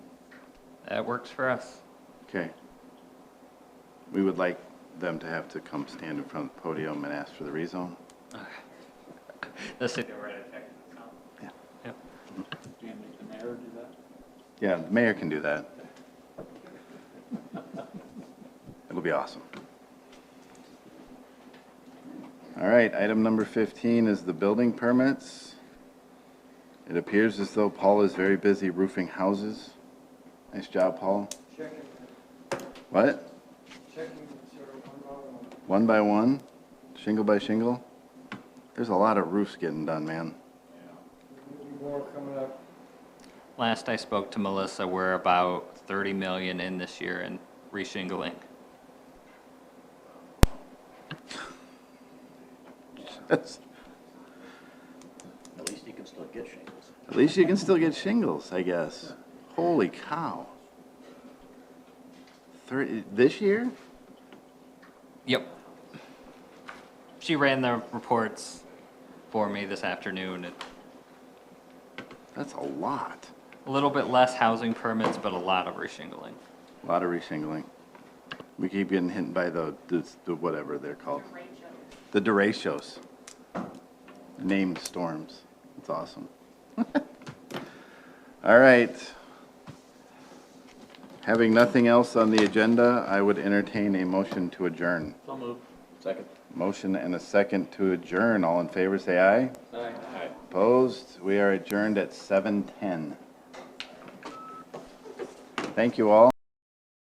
That works for us. Okay. We would like them to have to come stand in front of the podium and ask for the rezone. The city. Yep. Yeah, the mayor can do that. It'll be awesome. All right, item number 15 is the building permits. It appears as though Paul is very busy roofing houses. Nice job, Paul. Checking, What? checking, sir, one by one. One by one? Shingle by shingle? There's a lot of roofs getting done, man. There'll be more coming up. Last I spoke to Melissa, we're about 30 million in this year in reshingling. That's- At least you can still get shingles. At least you can still get shingles, I guess. Holy cow. Thirty, this year? Yep. She ran the reports for me this afternoon. and That's a lot. A little bit less housing permits, but a lot of reshingling. A lot of reshingling. We keep getting hit by the, the, the whatever they're called. The derechos. Named storms. It's awesome. All right. Having nothing else on the agenda, I would entertain a motion to adjourn. So move. Second. Motion and a second to adjourn. All in favor, say aye. Aye. Opposed? We are adjourned at 7:10. Thank you all.